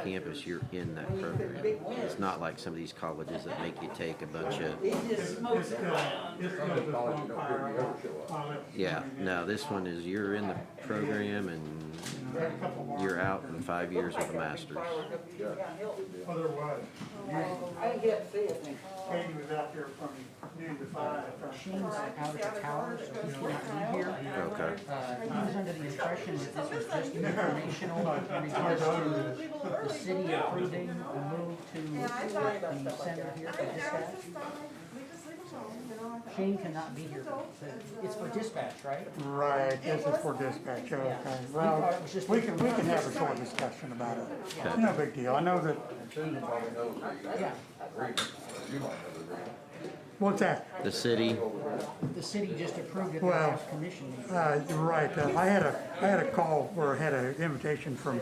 campus, you're in that program. It's not like some of these colleges that make you take a bunch of, It just smokes it around. This stuff is on fire. I'll- I'll let you yeah, know. no, this one is you're in the program and you're out in five years with a master's. Otherwise, I didn't get to see it. Katie was out there from noon to five. She was out at the tower, so he cannot be here. Okay. Uh, he was under the impression that this was just an informational, in regards to the city approving a move to the center here for dispatch. Shane cannot be here, but it's for dispatch, right? Right, this is for dispatch, okay. Well, we can, we can have a short discussion about it. No big deal. I know that, Yeah, what's that? The city, the city just approved it, they Well, asked permission. Uh, you're right. Uh, I had a, I had a call or had an invitation from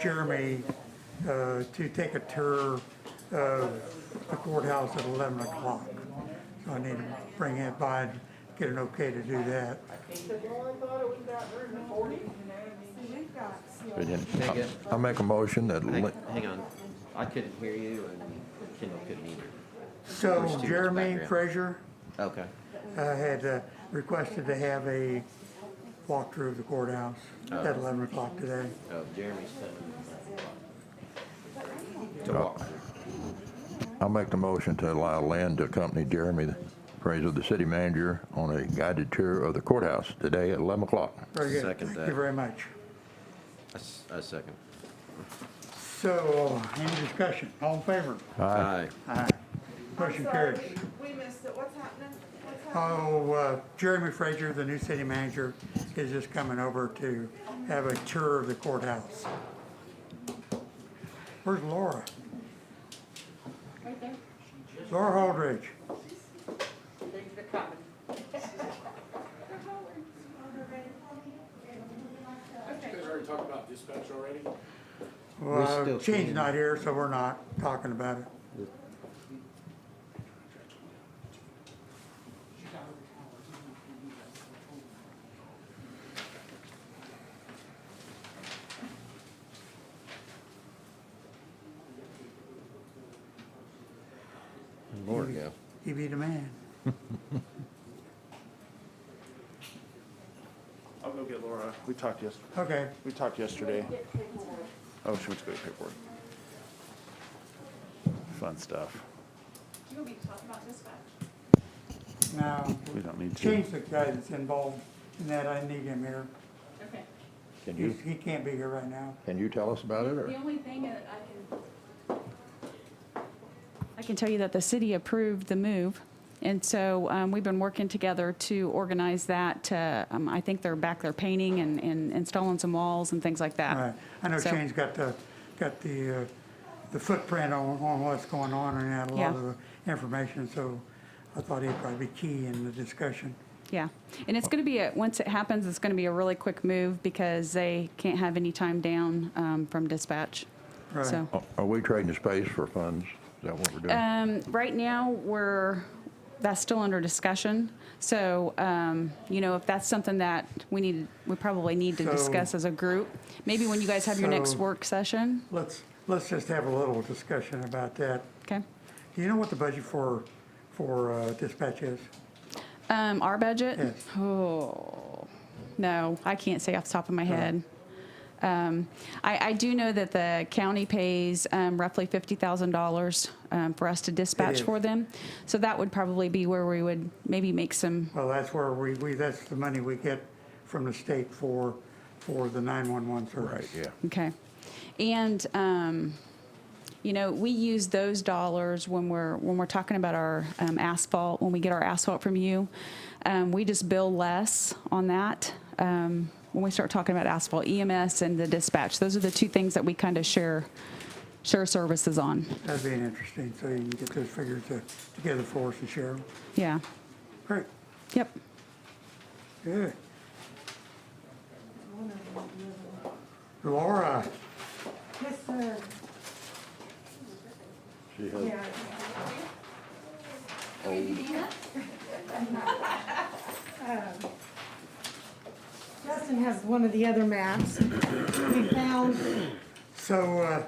Jeremy, uh, to take a tour of the courthouse at eleven o'clock. So I need to bring it by and get an okay to do that. We didn't- I make a motion that, hang li- hang on, I couldn't hear you and Kendall couldn't either. There's too So much Jeremy background. Frazier, Okay, uh, had uh, requested to have a walkthrough of the courthouse at eleven o'clock today. oh, Jeremy's coming. To walk. I make the motion to allow Lynn to accompany Jeremy Fraser, the city manager, on a guided tour of the courthouse today at 11 o'clock. Very good. Second Thank that. you very much. I s- I second. So, any discussion? All in favor? Aye. Aye. Motion carries. We missed it, what's happening? What's happening? Oh, uh, Jeremy Frazier, the new city manager, is just coming over to have a tour of the courthouse. Where's Laura? Right there. Laura Holdridge. They're coming. You guys already talked about dispatch already? still Well, Shane's can. not here, so we're not talking about it. Lord, yeah. He be the man. I'll go get Laura. We talked yes, Okay. we talked yesterday. Oh, she went to go get paperwork. Fun stuff. You gonna be talking about dispatch? Now, We don't need to. Shane's the guy that's involved in that. I need him here. Okay. Can you, He's- He can't be here right now. can you tell us about it, or? The only thing that I can. I can tell you that the city approved the move, and so um, we've been working together to organize that. to, um, I think they're back there painting and- and installing some walls and things like that. Right. I know So- Shane's got the, got the, uh, the footprint on, on what's going on and had a lot Yeah. of the information, so I thought he'd probably be key in the discussion. Yeah, and it's going to be, a- once it happens, it's going to be a really quick move because they can't have any time down um, from dispatch. Right. So, Are- Are we trading space for funds? Is that what we're doing? um, right now, we're, that's still under discussion. So, um, you know, if that's something that we need, we probably need to So- discuss as a group. Maybe when you guys have your next So- work session, Let's, let's just have a little discussion about that. okay? Do you know what the budget for, for uh, dispatch is? Um, our budget? Yes. Oh, no, I can't say off the top of my head. Um, I, I do know that the county pays, um, roughly fifty thousand dollars, um, for us to dispatch is. for them. So that would probably be where we would maybe make some, Well, that's where we, we, that's the money we get from the state for, for the 911 Right, service. yeah. okay. And, um, you know, we use those dollars when we're, when we're talking about our, um, asphalt, when we get our asphalt from you. Um, we just bill less on that, um, when we start talking about asphalt, EMS and the dispatch. Those are the two things that we kind of share, share services on. That'd be interesting, so you can get those figures to- together for us and share them. Yeah, Great, yep. good. Laura, Yes, sir. She has Justin has one of the other maps. We found, so uh,